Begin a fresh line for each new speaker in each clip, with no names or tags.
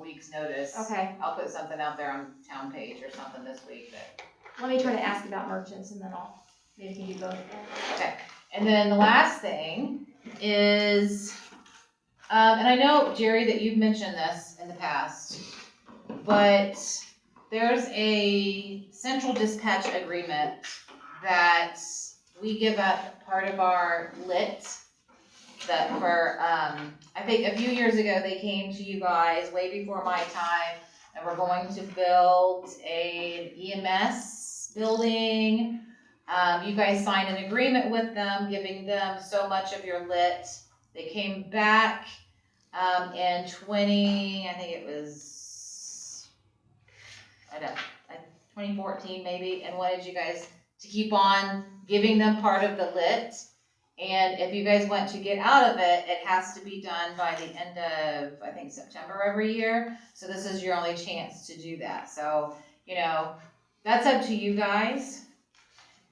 week's notice.
Okay,
I'll put something out there on town page or something this week that,
let me try to ask about merchants and then I'll, maybe we can do both.
okay. And then the last thing is, um, and I know, Jerry, that you've mentioned this in the past, but there's a central dispatch agreement that we give up part of our lit that for, um, I think a few years ago, they came to you guys way before my time, and we're going to build a EMS building. Um, you guys signed an agreement with them, giving them so much of your lit. They came back, um, in twenty, I think it was, I don't, twenty fourteen maybe, and wanted you guys to keep on giving them part of the lit. And if you guys want to get out of it, it has to be done by the end of, I think, September every year. So this is your only chance to do that. So, you know, that's up to you guys.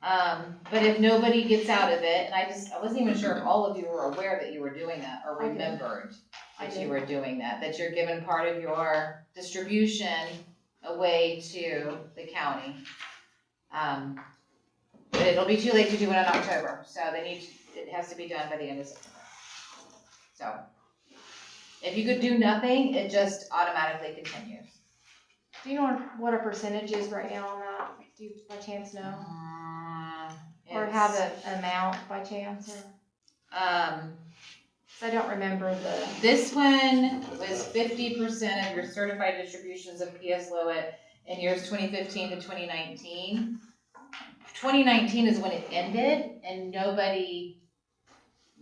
Um, but if nobody gets out of it, and I just, I wasn't even sure if all of you were aware that you were doing that or
I did.
remembered
I
that
did.
you were doing that, that you're giving part of your distribution away to the county. Um, but it'll be too late to do it in October, so they need, to- it has to be done by the end of September. So, if you could do nothing, it just automatically continues.
Do you know what our percentage is right now on that? Do you by chance know?
Mm,
Or
it's,
have a- an amount by chance or?
Um,
Cause I don't remember the,
this one was fifty percent of your certified distributions of PS Lowit in years twenty fifteen to twenty nineteen. Twenty nineteen is when it ended and nobody,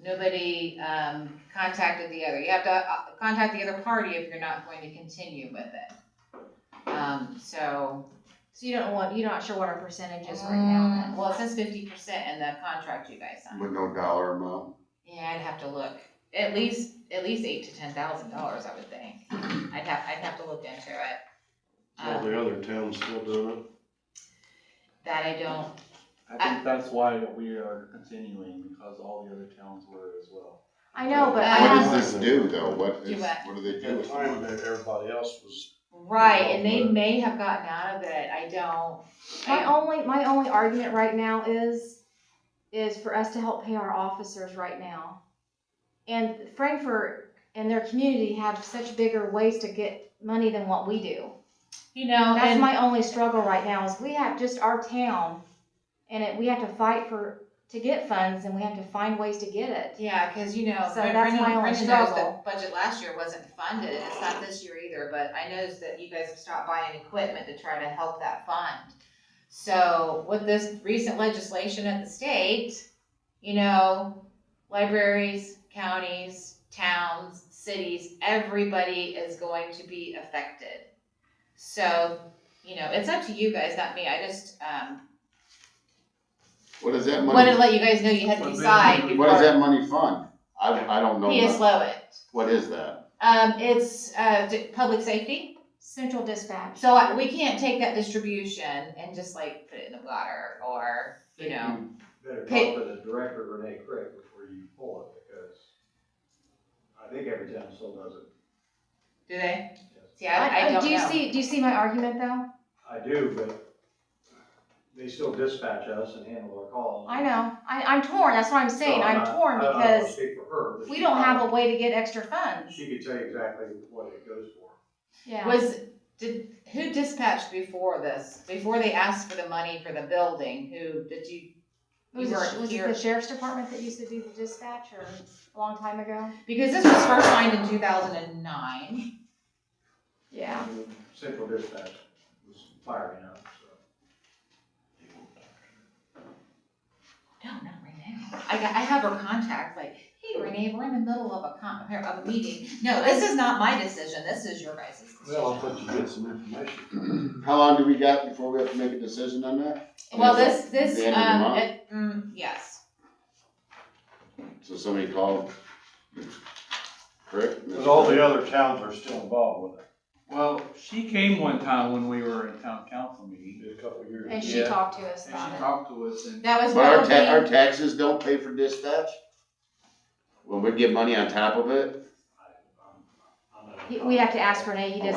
nobody, um, contacted the other. You have to, uh, contact the other party if you're not going to continue with it. Um, so.
so you don't want, you're not sure what our percentage is right now
Well, it says fifty percent in the contract you guys signed.
With no dollar amount?
Yeah, I'd have to look. At least, at least eight to ten thousand dollars, I would think. I'd have, I'd have to look into it.
All
Um,
the other towns still doing
That I don't,
I think that's why we are continuing, because all the other towns were as well.
I know, but
What
I
What
have,
does this do though? What
Do
is,
what?
what do they
it.
do
At
with
the time
it?
that everybody else was,
right, and they may have gotten out of it. I don't.
my
I-
only, my only argument right now is, is for us to help pay our officers right now. And Frankfurt and their community have such bigger ways to get money than what we do.
You know,
That's
and,
my only struggle right now is we have just our town and it, we have to fight for, to get funds and we have to find ways to get it.
yeah, cause you know,
So that's
Brendan,
my only
Brendan knows
struggle.
that budget last year wasn't funded. It's not this year either, but I noticed that you guys have stopped buying equipment to try to help that fund. So with this recent legislation at the state, you know, libraries, counties, towns, cities, everybody is going to be affected. So, you know, it's up to you guys, not me. I just, um,
What does that
wanted to let
money,
you guys know you had to decide
what does
before
that money fund? I, I don't know.
PS
much.
Lowit.
What is that?
Um, it's, uh, d- public safety.
Central dispatch.
So I- we can't take that distribution and just like put it in the water or, you know.
Better
Hey.
talk to the director Renee Craig before you pull it, because I think every town still does it.
Do they?
Yes.
See, I, I don't
Do you
know.
see, do you see my argument though?
I do, but they still dispatch us and handle our calls.
I know, I, I'm torn, that's what I'm
So
saying, I'm
not-
torn
I don't wanna
because
Speak for her. but
we
she
don't have a
probably-
way to get extra funds.
She could tell you exactly what it goes for.
Yeah,
Was, did, who dispatched before this? Before they asked for the money for the building, who, did you?
It was,
you
it-
weren't
was it
here.
the sheriff's department that used to do the dispatch or a long time ago?
Because this was first signed in two thousand and nine.
Yeah.
Central dispatch was firing up, so.
No, not Renee. I got, I have her contact, like, hey Renee, we're in the middle of a con, of a meeting. No, this is not my decision. This is your guys' decision.
well, I thought you get some information.
How long do we got before we have to make a decision on that?
Well,
Is
this, this,
the end of the
um,
month?
it, mm, yes,
it- So somebody called, correct?
But all the other towns are still involved with it.
Well, she came one time when we were in town council meeting,
Did a couple of years.
And she
Yeah.
talked to us
and she
about it.
talked to us and,
that was
But our ta- our
probably,
taxes don't pay for dispatch? When we get money on top of it?
I- I'm- I'm not-
He- We have to ask Renee, he doesn't